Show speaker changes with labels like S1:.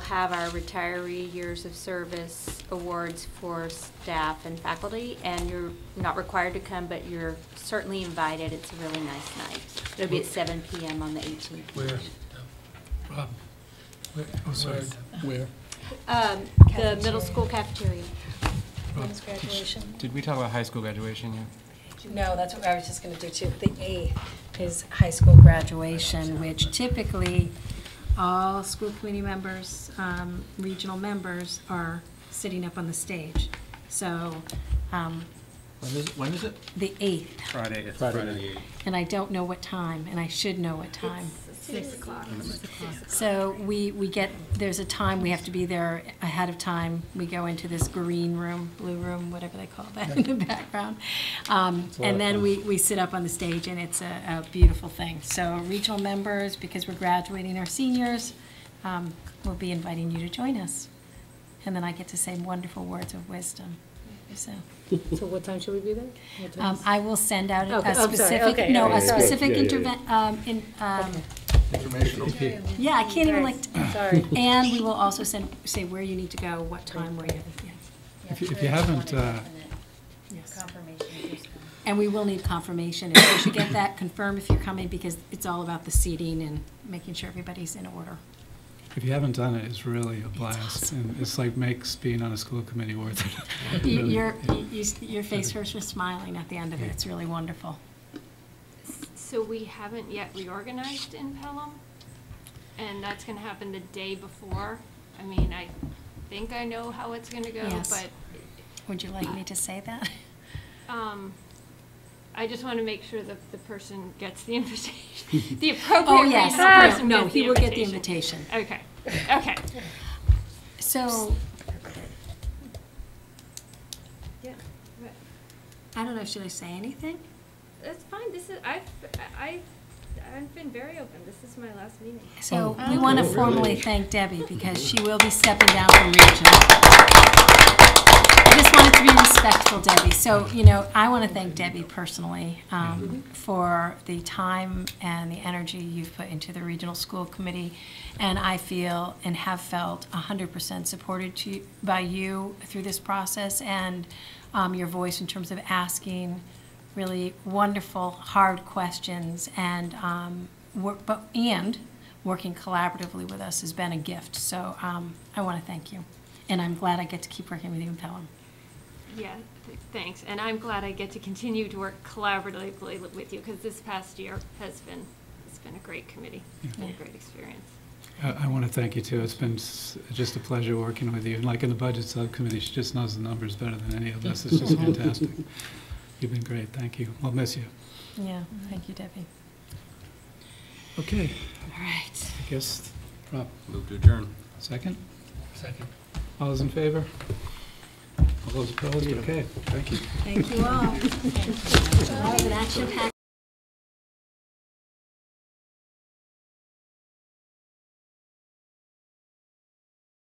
S1: have our retiree years of service awards for staff and faculty, and you're not required to come, but you're certainly invited. It's a really nice night. It'll be at seven PM on the eighteenth.
S2: Where?
S3: Rob, where, oh, sorry, where?
S1: Um, the middle school cafeteria.
S3: Rob,
S4: When's
S3: did you-
S4: graduation?
S5: Did we talk about high school graduation yet?
S4: No, that's what I was just going to do too. The eighth is high school graduation, which typically all school committee members, um, regional members are sitting up on the stage. So um,
S6: When is, when is it?
S4: the eighth,
S6: Friday, it's
S3: Friday.
S6: Friday the eighth.
S4: and I don't know what time, and I should know what time.
S1: Six o'clock.
S4: So we, we get, there's a time, we have to be there ahead of time. We go into this green room, blue room, whatever they call that in the background. Um,
S3: a lot
S4: And
S3: of
S4: then
S3: fun.
S4: we, we sit up on the stage, and it's a, a beautiful thing. So regional members, because we're graduating our seniors, um, we'll be inviting you to join us. And then I get to say wonderful words of wisdom, so.
S7: So what time should we be there? What time
S4: Um,
S7: is-
S4: I will send out
S7: Okay,
S4: a
S7: I'm sorry,
S4: specific,
S7: okay,
S4: no,
S7: okay,
S4: a
S7: sorry.
S4: specific
S8: Yeah, yeah, yeah.
S4: interve- um, in, um,
S3: Informational.
S4: yeah, I can't even like,
S7: Sorry.
S4: And we will also send, say where you need to go, what time, where you, yeah,
S3: If you, if you haven't, uh,
S4: yes.
S1: Confirmation. who's coming.
S4: And we will need confirmation, if you should get that, confirm if you're coming, because it's all about the seating and making sure everybody's in order.
S3: if you haven't done it, it's really a blast, and it's like makes being on a school committee worth it.
S4: You-
S3: Really,
S4: Your,
S3: yeah.
S4: you- you- your face hurts from smiling at the end of it, it's really wonderful.
S9: So we haven't yet reorganized in Pelham, and that's gonna happen the day before. I mean, I think I know how it's gonna go,
S4: Yes.
S9: but,
S4: Would you like me to say that?
S9: um, I just wanna make sure that the person gets the invitation, the appropriate
S4: Oh,
S9: regional
S4: yes,
S9: person
S4: no, no,
S9: gets the
S4: he will get the
S9: invitation.
S4: invitation.
S9: Okay, okay.
S4: So,
S9: Yeah,
S4: I don't know, should I say anything?
S9: that's fine, this is, I've, I, I've been very open, this is my last meeting.
S4: So
S3: Oh,
S4: we want to
S3: really?
S4: formally thank Debbie because she will be stepping down from regional. I just wanted to be respectful, Debbie. So, you know, I want to thank Debbie personally um, for the time and the energy you've put into the Regional School Committee. And I feel and have felt 100% supported to you- by you through this process and um, your voice in terms of asking really wonderful, hard questions and, um, wor- but, and working collaboratively with us has been a gift. So um, I want to thank you. And I'm glad I get to keep working with you in Pelham.
S9: Yeah, th- thanks, and I'm glad I get to continue to work collaboratively with you, because this past year has been, it's been a great committee, it's been a great experience.
S3: I, I want to thank you too. It's been s- just a pleasure working with you. And like in the budget subcommittee, she just knows the numbers better than any of us. It's just fantastic. You've been great. Thank you. I'll miss you.
S4: Yeah, thank you, Debbie.
S3: Okay,
S4: All right.
S3: I guess, Rob,
S6: Move to adjourn.
S3: second?
S2: Second.
S3: All those in favor? All those opposed? Okay, thank you.
S4: Thank you all. That was an action-packed